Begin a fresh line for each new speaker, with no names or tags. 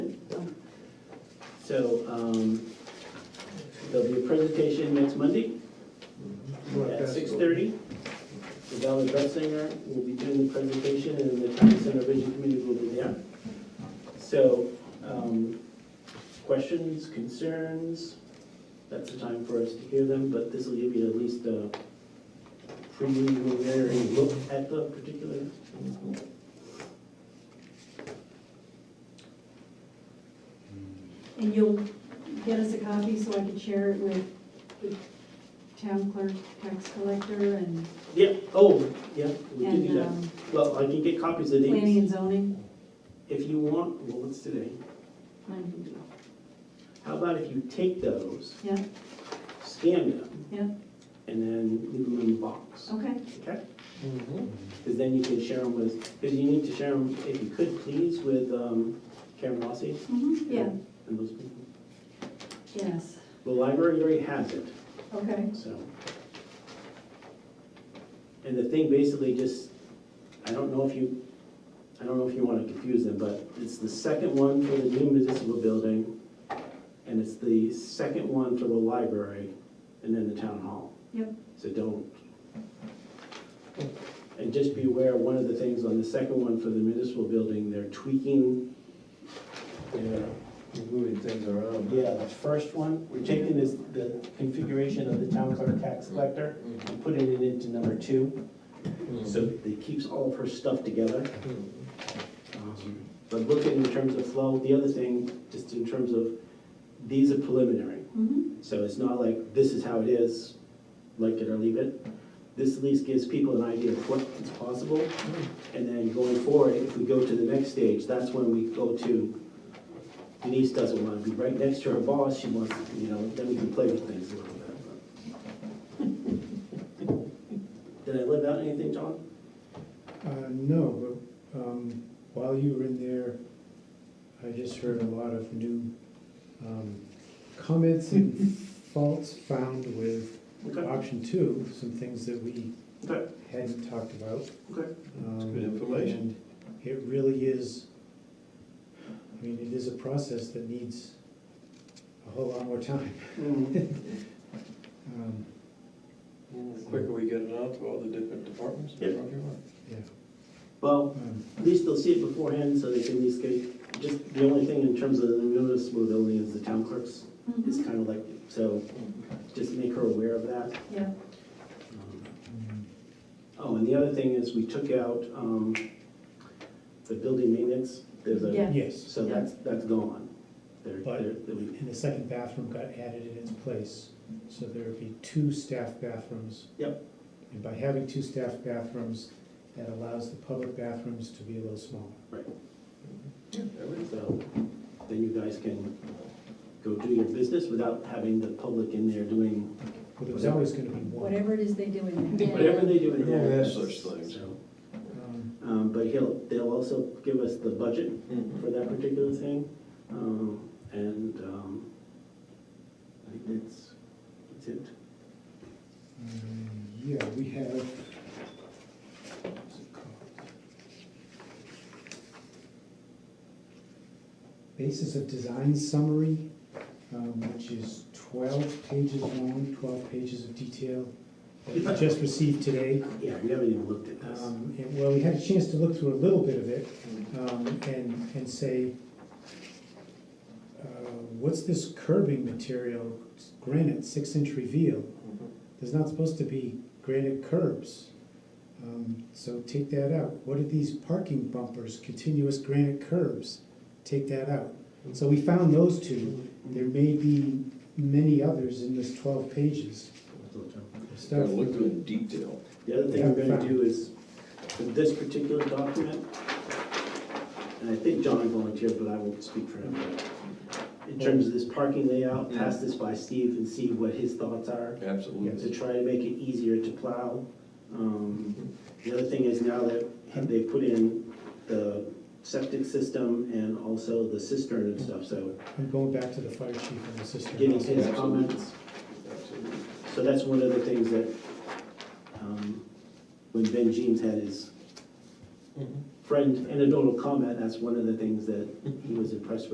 So um, there'll be a presentation next Monday at six thirty. The Valley Dressinger will be doing the presentation, and the Town Center Vision Committee will be there. So, um, questions, concerns, that's the time for us to hear them, but this will give you at least a preliminary look at the particular.
And you'll get us a copy so I can share it with the town clerk, tax collector, and,
Yeah, oh, yeah, we can do
and
that.
um,
Well, I can get copies of
planning
these
and zoning.
if you want, well, what's today?
Planning and zoning.
How about if you take those?
Yeah.
Scan them.
Yeah.
And then leave them in the box,
Okay,
okay?
Mm-hmm.
Because then you can share them with, because you need to share them, if you could, please, with um, Karen Rossi
Mhm.
Mm-hmm.
yeah,
and those people.
yes,
The library already has it,
okay,
so. And the thing basically just, I don't know if you, I don't know if you want to confuse them, but it's the second one for the new municipal building, and it's the second one for the library, and then the town hall.
Yep.
So don't. And just be aware, one of the things on the second one for the municipal building, they're tweaking their
Moving things around.
yeah, the first one, we're taking this, the configuration of the town clerk tax collector and putting it into number two.
Mm-hmm.
So it keeps all of her stuff together. Um, But looking in terms of flow, the other thing, just in terms of, these are preliminary.
mhm,
So it's not like, this is how it is, like it or leave it. This at least gives people an idea of what is possible. And then going forward, if we go to the next stage, that's when we go to, Denise doesn't want to be right next to her boss, she wants, you know, then we can play with things a little bit. Did I live out anything, John?
Uh, No, but um, while you were in there, I just heard a lot of new um, comments and faults found with
Okay,
option two, some things that we
okay,
hadn't talked about.
okay.
It's
good information.
It really is, I mean, it is a process that needs a whole lot more time.
Mm,
Um,
Mm-hmm. The quicker we get it out to all the different departments, the
Yeah.
quicker you are.
Yeah.
Well,
Um,
at least they'll see it beforehand, so they can at least get, just the only thing in terms of the noticeable building is the town clerk's. It's
mhm,
kind of like, so just make her aware of that.
yeah,
Um, Oh, and the other thing is, we took out um, the building maintenance, there's a,
Yeah.
Yes,
so that's, that's gone. There,
But-
there, there we-
and the second bathroom got added in its place, so there would be two staff bathrooms
Yep,
And by having two staff bathrooms, that allows the public bathrooms to be a little smaller.
so then you guys can go do your business without having the public in there doing
But there's always gonna be one.
whatever it is they do in there.
whatever they do in
Yeah,
there.
that's such things.
So,
Um,
um, But he'll, they'll also give us the budget
Mhm.
for that particular thing. Um, And um, I think that's, that's it.
um, Yeah, we have. what's it called? Basis of design summary, um, which is twelve pages long, twelve pages of detail, that we just received today.
Yeah, we haven't even looked at this.
Um, and- Well, we had a chance to look through a little bit of it,
Mm-hmm.
um, and, and say, uh, what's this curbing material, granite, six inch reveal? There's not supposed to be granite curbs. Um, So take that out. What are these parking bumpers, continuous granite curbs? Take that out. So we found those two. There may be many others in this twelve pages of
Gotta
stuff.
look through it in detail.
The other thing we're gonna do is, for this particular document, and I think John volunteered, but I won't speak for him. In terms of this parking layout, pass this by Steve and see what his thoughts are, to
Absolutely.
try to make it easier to plow. Um, The other thing is now that they put in the septic system and also the cistern and stuff, so
I'm going back to the fire chief and the sister.
getting his comments. So that's one of the things that, um, when Ben Jeans had his
Mm-hmm.
friend anecdotal comment, that's one of the things that he was impressed with.